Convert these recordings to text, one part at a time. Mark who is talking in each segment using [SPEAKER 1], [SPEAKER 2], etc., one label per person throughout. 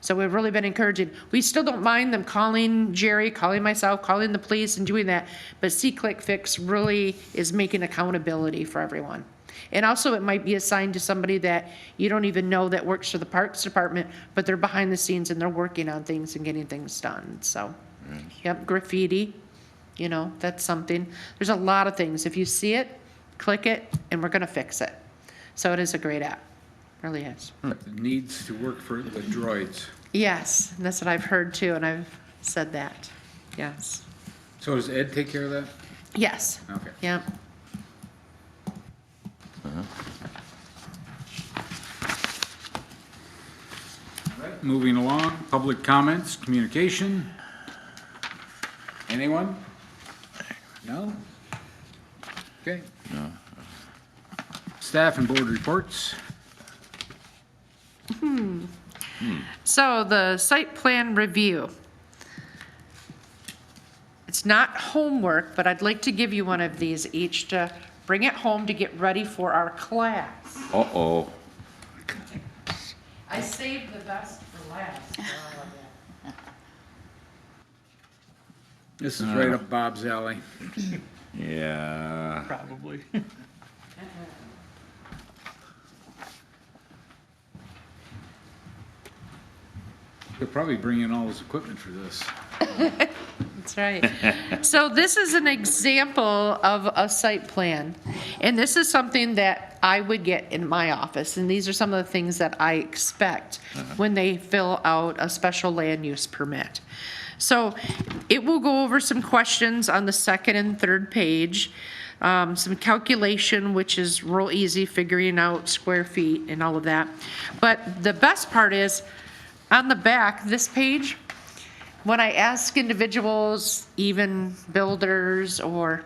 [SPEAKER 1] So we've really been encouraging. We still don't mind them calling Jerry, calling myself, calling the police and doing that. But C-Click Fix really is making accountability for everyone. And also, it might be assigned to somebody that you don't even know that works for the Parks Department, but they're behind the scenes and they're working on things and getting things done, so. Yep, graffiti, you know, that's something. There's a lot of things. If you see it, click it, and we're gonna fix it. So it is a great app, really is.
[SPEAKER 2] Needs to work for the droids.
[SPEAKER 1] Yes, and that's what I've heard too, and I've said that, yes.
[SPEAKER 2] So does Ed take care of that?
[SPEAKER 1] Yes,
[SPEAKER 2] Okay.
[SPEAKER 1] yep.
[SPEAKER 2] Moving along, public comments, communication. Anyone? No? Okay. Staff and board reports.
[SPEAKER 1] So the site plan review. It's not homework, but I'd like to give you one of these each to bring it home to get ready for our class.
[SPEAKER 3] Uh-oh.
[SPEAKER 1] I saved the best for last. for all of you.
[SPEAKER 2] This is right up Bob's alley.
[SPEAKER 3] Yeah.
[SPEAKER 4] Probably.
[SPEAKER 2] They'll probably bring in all this equipment for this.
[SPEAKER 1] That's right. So this is an example of a site plan. And this is something that I would get in my office. And these are some of the things that I expect when they fill out a special land use permit. So it will go over some questions on the second and third page, um, some calculation, which is real easy, figuring out square feet and all of that. But the best part is, on the back, this page, when I ask individuals, even builders or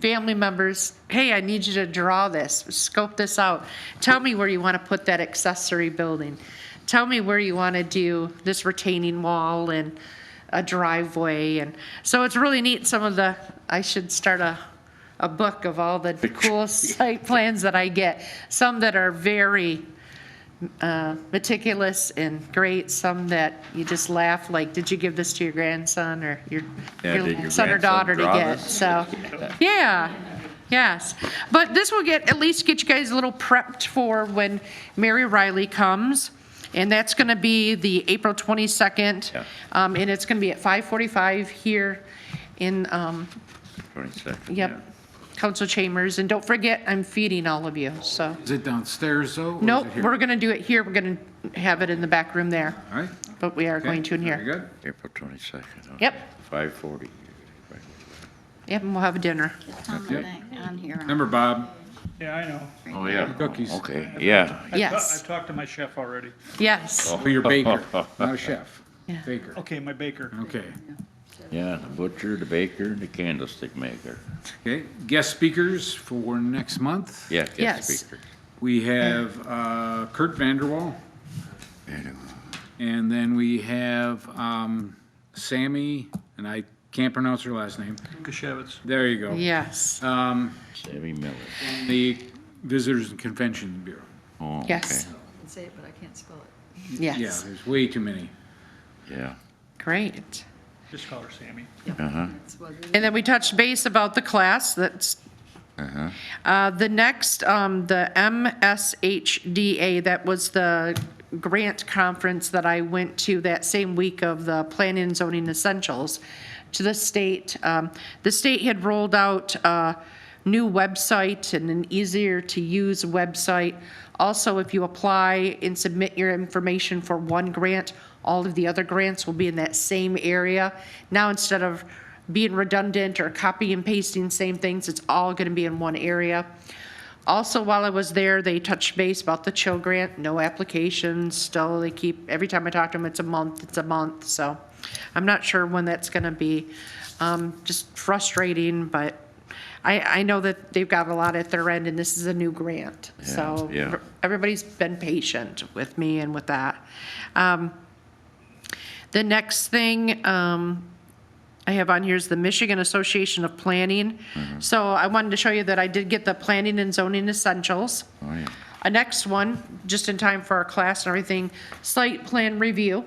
[SPEAKER 1] family members, hey, I need you to draw this, scope this out. Tell me where you want to put that accessory building. Tell me where you want to do this retaining wall and a driveway. And so it's really neat, some of the, I should start a, a book of all the cool site plans that I get. Some that are very uh, meticulous and great, some that you just laugh, like, did you give this to your grandson or your
[SPEAKER 3] Yeah, did your
[SPEAKER 1] your son or
[SPEAKER 3] grandson
[SPEAKER 1] daughter to
[SPEAKER 3] draw
[SPEAKER 1] get?
[SPEAKER 3] this?
[SPEAKER 1] So, yeah, yes. But this will get, at least get you guys a little prepped for when Mary Riley comes. And that's going to be the April 22nd.
[SPEAKER 3] Yeah.
[SPEAKER 1] Um, And it's going to be at 5:45 here in, um,
[SPEAKER 3] 22nd.
[SPEAKER 1] yep, council chambers. And don't forget, I'm feeding all of you, so.
[SPEAKER 2] Is it downstairs though? or is it
[SPEAKER 1] Nope,
[SPEAKER 2] here?
[SPEAKER 1] we're going to do it here. We're going to have it in the back room there,
[SPEAKER 2] All right.
[SPEAKER 1] but we are going to in
[SPEAKER 2] Okay,
[SPEAKER 1] here.
[SPEAKER 2] Very good.
[SPEAKER 3] April 22nd. okay.
[SPEAKER 1] Yep.
[SPEAKER 3] 5:40. Right.
[SPEAKER 1] Yep, and we'll have a dinner.
[SPEAKER 5] It's on
[SPEAKER 6] Um,
[SPEAKER 5] the
[SPEAKER 2] Yep.
[SPEAKER 5] back, on here. on-
[SPEAKER 2] Remember, Bob,
[SPEAKER 4] Yeah, I know.
[SPEAKER 3] Oh, yeah.
[SPEAKER 2] Cookies.
[SPEAKER 3] Okay, yeah.
[SPEAKER 4] I've ta-
[SPEAKER 1] Yes.
[SPEAKER 4] I've talked to my chef already.
[SPEAKER 1] Yes,
[SPEAKER 2] you're baker, not a chef.
[SPEAKER 1] Yeah.
[SPEAKER 2] Baker.
[SPEAKER 4] Okay, my baker.
[SPEAKER 2] Okay.
[SPEAKER 3] Yeah, the butcher, the baker, and the candlestick maker.
[SPEAKER 2] Okay. Guest speakers for next month.
[SPEAKER 3] Yeah,
[SPEAKER 1] Yes.
[SPEAKER 3] guest speaker.
[SPEAKER 2] We have uh, Kurt Vanderwall, and then we have um, Sammy, and I can't pronounce her last name.
[SPEAKER 4] Kashevitz.
[SPEAKER 2] There you go.
[SPEAKER 1] yes,
[SPEAKER 2] Oh,
[SPEAKER 3] Sammy Miller.
[SPEAKER 2] The Visitors and Convention Bureau.
[SPEAKER 3] Oh, okay.
[SPEAKER 1] yes,
[SPEAKER 6] can say it, but I can't spell it.
[SPEAKER 2] Yeah,
[SPEAKER 1] yes.
[SPEAKER 2] there's way too many.
[SPEAKER 3] Yeah.
[SPEAKER 1] Great.
[SPEAKER 4] Just call her Sammy.
[SPEAKER 6] It's what it is.
[SPEAKER 1] And then we touched base about the class, that's, Uh, the next, um, the MSHDA, that was the grant conference that I went to that same week of the Planning and Zoning Essentials to the state. Um, The state had rolled out a new website and an easier-to-use website. Also, if you apply and submit your information for one grant, all of the other grants will be in that same area. Now, instead of being redundant or copy and pasting same things, it's all gonna be in one area. Also, while I was there, they touched base about the chill grant, no applications, still they keep, every time I talk to them, it's a month, it's a month, so. I'm not sure when that's gonna be, um, just frustrating, but I, I know that they've got a lot at their end and this is a new grant, so.
[SPEAKER 3] Yeah, yeah.
[SPEAKER 1] Everybody's been patient with me and with that. Um, The next thing, um, I have on here is the Michigan Association of Planning. So I wanted to show you that I did get the planning and zoning essentials.
[SPEAKER 3] Oh, yeah.
[SPEAKER 1] A next one, just in time for our class and everything, site plan review.